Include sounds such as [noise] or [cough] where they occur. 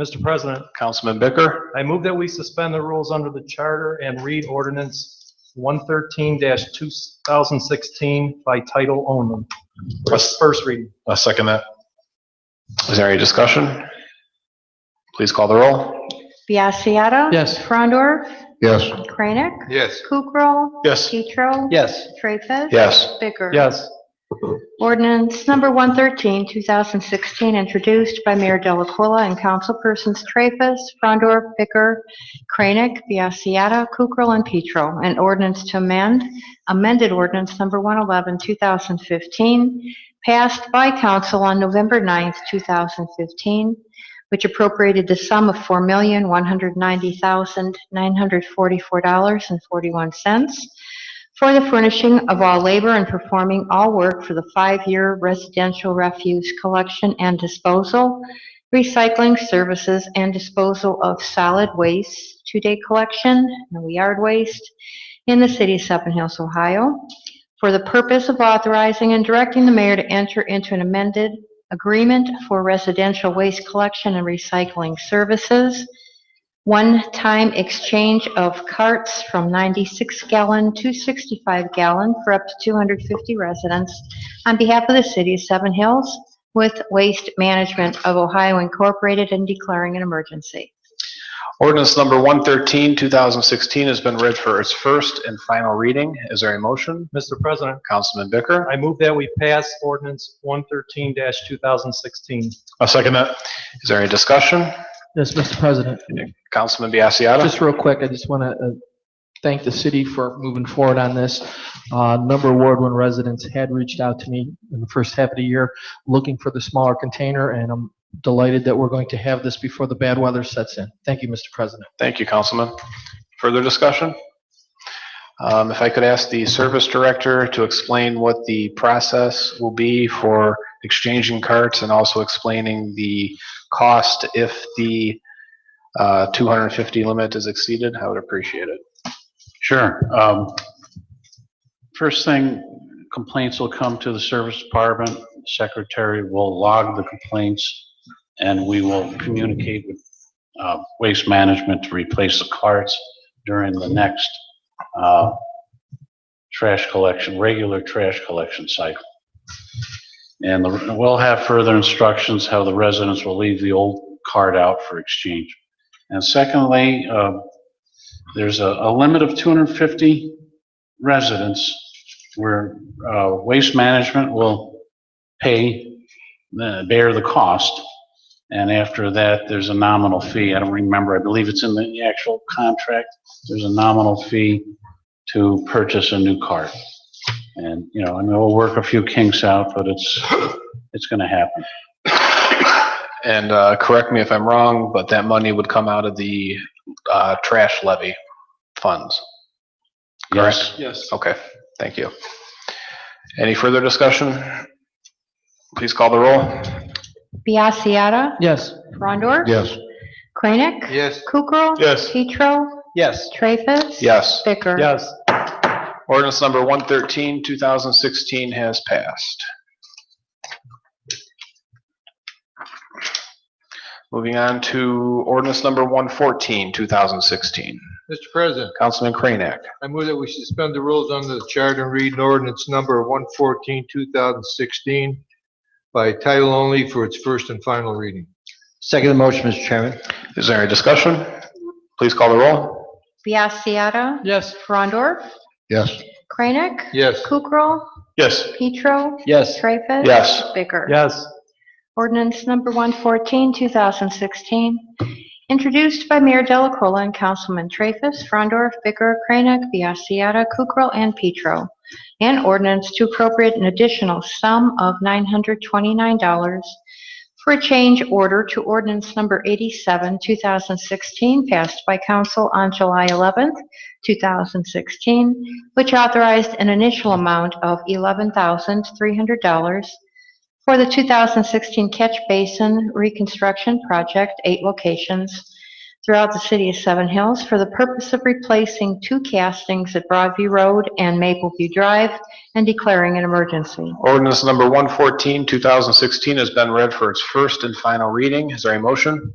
Mr. President, Councilman Bicker, I move that we suspend the rules under the charter and read ordinance 113-2016 by title only. First first reading. I second that. Is there any discussion? Please call the roll. Biassiata. Yes. Frondor. Yes. Kranek. Yes. Kukrow. Yes. Petro. Yes. Treffus. Yes. Bicker. Yes. Ordinance number 113, 2016, introduced by Mayor Delacola and councilpersons Traffus, Frondor, Bicker, Kranek, Biassiata, Kukrow, and Petro. An ordinance to amend, amended ordinance number 111, 2015, passed by council on November 9th, 2015, which appropriated the sum of $4,190,944.41 for the furnishing of all labor and performing all work for the five-year residential refuse collection and disposal, recycling services and disposal of solid waste, two-day collection, no yard waste, in the city of Seven Hills, Ohio, for the purpose of authorizing and directing the mayor to enter into an amended agreement for residential waste collection and recycling services, one-time exchange of carts from 96-gallon to 65-gallon for up to 250 residents on behalf of the city of Seven Hills with Waste Management of Ohio Incorporated and declaring an emergency. Ordinance number 113, 2016 has been read for its first and final reading. Is there a motion? Mr. President, Councilman Bicker, I move that we pass ordinance 113-2016. I second that. Is there any discussion? Yes, Mr. President. Councilman Biassiata. Just real quick, I just want to thank the city for moving forward on this. Uh, A number of Ward 1 residents had reached out to me in the first half of the year looking for the smaller container, and I'm delighted that we're going to have this before the bad weather sets in. Thank you, Mr. President. Thank you, Councilman. Further discussion? Um, If I could ask the service director to explain what the process will be for exchanging carts and also explaining the cost if the uh, 250 limit is exceeded, I would appreciate it. [coughs] Sure. Um, First thing, complaints will come to the service department. Secretary will log the complaints, and we will communicate with uh, Waste Management to replace the carts during the next uh, trash collection, regular trash collection cycle. And the- we'll have further instructions how the residents will leave the old cart out for exchange. And secondly, uh, there's a, a limit of 250 residents where uh, Waste Management will pay, the- bear the cost. And after that, there's a nominal fee. I don't remember, I believe it's in the actual contract. There's a nominal fee to purchase a new cart. And, you know, I mean, we'll work a few kinks out, but it's, it's going to happen. And uh, correct me if I'm wrong, but that money would come out of the uh, trash levy funds. Yes. Yes. Okay, thank you. Any further discussion? Please call the roll. Biassiata. Yes. Frondor. Yes. Kranek. Yes. Kukrow. Yes. Petro. Yes. Traffus. Yes. Bicker. Yes. Ordinance number 113, 2016 has passed. Moving on to ordinance number 114, 2016. Mr. President, Councilman Kranek. I move that we suspend the rules under the charter and read an ordinance number 114, 2016 by title only for its first and final reading. Second motion, Mr. Chairman. Is there any discussion? Please call the roll. Biassiata. Yes. Frondor. Yes. Kranek. Yes. Kukrow. Yes. Petro. Yes. Traffus. Yes. Bicker. Yes. Ordinance number 114, 2016, introduced by Mayor Delacola and Councilman Traffus, Frondorf, Bicker, Kranek, Biassiata, Kukrow, and Petro. An ordinance to appropriate an additional sum of $929 for a change order to ordinance number 87, 2016, passed by council on July 11th, 2016, which authorized an initial amount of $11,300 for the 2016 Catch Basin Reconstruction Project, eight locations throughout the city of Seven Hills for the purpose of replacing two castings at Broadview Road and Mapleview Drive and declaring an emergency. Ordinance number 114, 2016 has been read for its first and final reading. Is there a motion?